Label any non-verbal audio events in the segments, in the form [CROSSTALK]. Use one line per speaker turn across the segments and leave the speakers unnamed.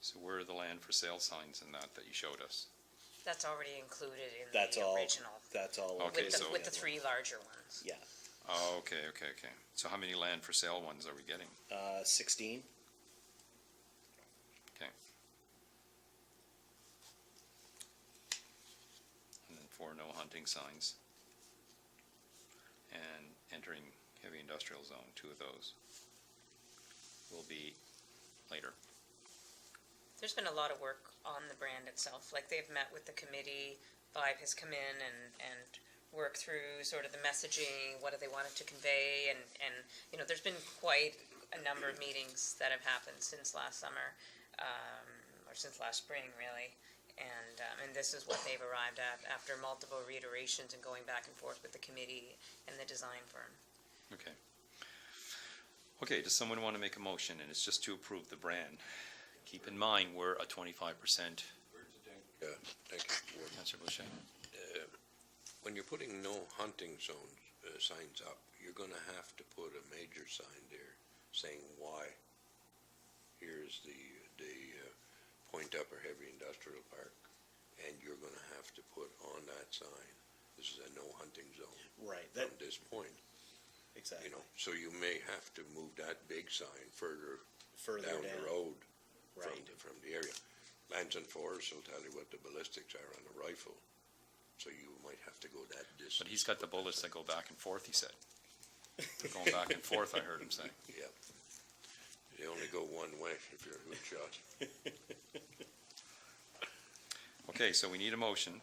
So where are the land for sale signs in that that you showed us?
That's already included in
That's all.
the original,
That's all.
Okay,
with the,
so-
with the three larger ones.
Yeah,
Oh, okay, okay, okay. So how many land for sale ones are we getting?
uh, sixteen.
Okay. And then four no hunting signs. And entering heavy industrial zone, two of those will be later.
There's been a lot of work on the brand itself, like they've met with the committee, Vibe has come in and, and worked through sort of the messaging, what do they want it to convey, and, and, you know, there's been quite a number of meetings that have happened since last summer, um, or since last spring, really. And, um, and this is what they've arrived at after multiple reiterations and going back and forth with the committee and the design firm.
Okay. Okay, does someone want to make a motion? And it's just to approve the brand. Keep in mind, we're a twenty-five percent,
Yeah, thank you. Well,
Councillor Boucher.
uh, When you're putting no hunting zones, uh, signs up, you're gonna have to put a major sign there saying why. Here's the, the uh, Point Upper Heavy Industrial Park, and you're gonna have to put on that sign, this is a no hunting zone
Right. That
from this point,
Oh, exactly.
you know? So you may have to move that big sign further
Further
down
down,
the road from,
Right.
[LAUGHS] the- from the area. Lands and Forest will tell you what the ballistics are on a rifle, so you might have to go that distance.
But he's got the bullets that go back and forth, he said. They're going back and forth, I heard him say.
Yep. They only go one way if you're a good shot.
Okay, so we need a motion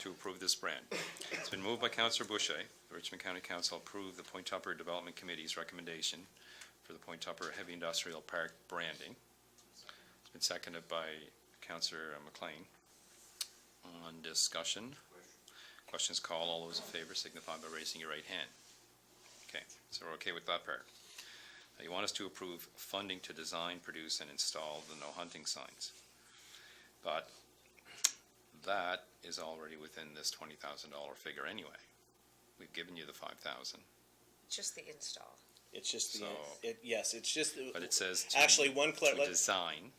to approve this brand. It's been moved by Councillor Boucher, the Richmond County Council approved the Point Tupper Development Committee's recommendation for the Point Tupper Heavy Industrial Park branding. It's been seconded by Councillor McLean. On discussion, questions called, all those in favor signify by raising your right hand. Okay, so we're okay with that part. Now, You want us to approve funding to design, produce, and install the no hunting signs. But that is already within this twenty thousand dollar figure anyway. We've given you the five thousand,
Just the install.
It's just the
So-
it, yes. It's just
but it says to-
actually one clar-
To
let-
design,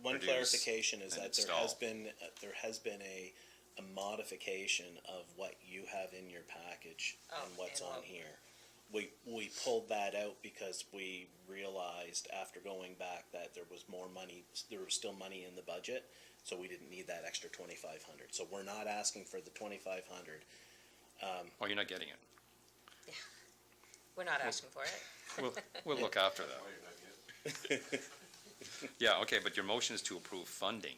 one
produce
clarification is
and
that there
install.
has been uh, there has been a a modification of what you have in your package
Oh,
and what's
and
on
what-
here. We we pulled that out because we realized after going back that there was more money. There was still money in the budget, so we didn't need that extra twenty five hundred. So we're not asking for the twenty five hundred.
oh, you're not getting it.
We're not asking for it.
We'll, we'll look after that. Yeah, okay, but your motion is to approve funding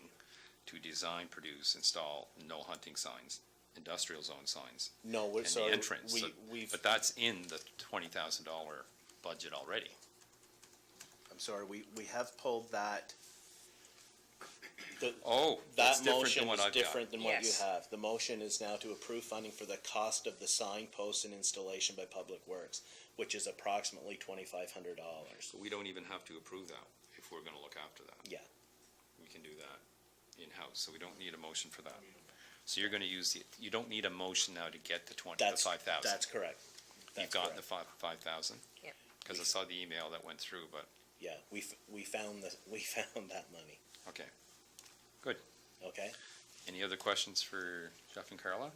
to design, produce, install no hunting signs, industrial zone signs,
No, we're
and the
sorry.
entrance.
We
So-
we've.
But that's in the twenty thousand dollar budget already.
I'm sorry. We we have pulled that. The,
Oh, that's
That
different than
motion
what
is
I've got.
different than what you
Yes.
have. The motion is now to approve funding for the cost of the signpost and installation by Public Works, which is approximately twenty-five hundred dollars.
So we don't even have to approve that if we're gonna look after that.
Yeah,
we can do that in-house, so we don't need a motion for that. So you're gonna use the, you don't need a motion now to get the twenty, the
that's,
five thousand.
that's correct.
You've
That's
gotten the
correct.
five, five thousand?
Yep.
Cause I saw the email that went through, but,
Yeah, we, f- we found the, [LAUGHS] we found that money,
okay.
okay?
Any other questions for Jeff and Carla?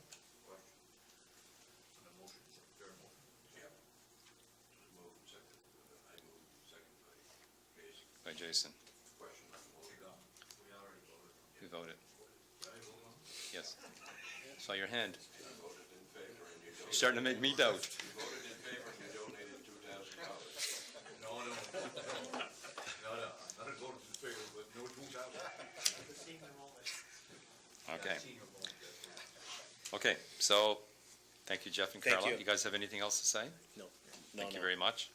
By Jason. You voted. Yes. Saw your hand. You're Starting to make me doubt.
No, no, no, no, I'm not going to the favor, but no two thousand.
Okay. Okay, so, thank you, Jeff and
Thank
Carla.
you.
You guys have anything else to say?
No, no,
Thank you
no,
very much.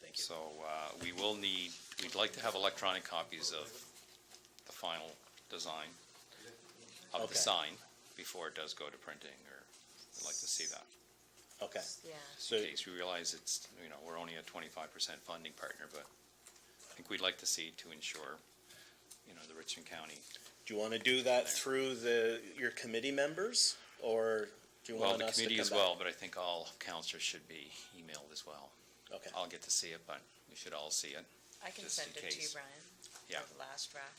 thank you.
So, uh, we will need, we'd like to have electronic copies of the final design of
Okay.
the sign before it does go to printing, or we'd like to see that.
Okay,
Yeah.
so,
In case we realize it's, you know, we're only a twenty-five percent funding partner, but I think we'd like to see to ensure, you know, the Richmond County
do you wanna do that through the, your committee members, or do you
Well,
want
the
us to come
committee as
back?
well, but I think all counselors should be emailed as well.
Okay,
I'll get to see it, but we should all see it.
I can
Just
send
in
it to you,
case.
Brian.
Yeah.
the last draft.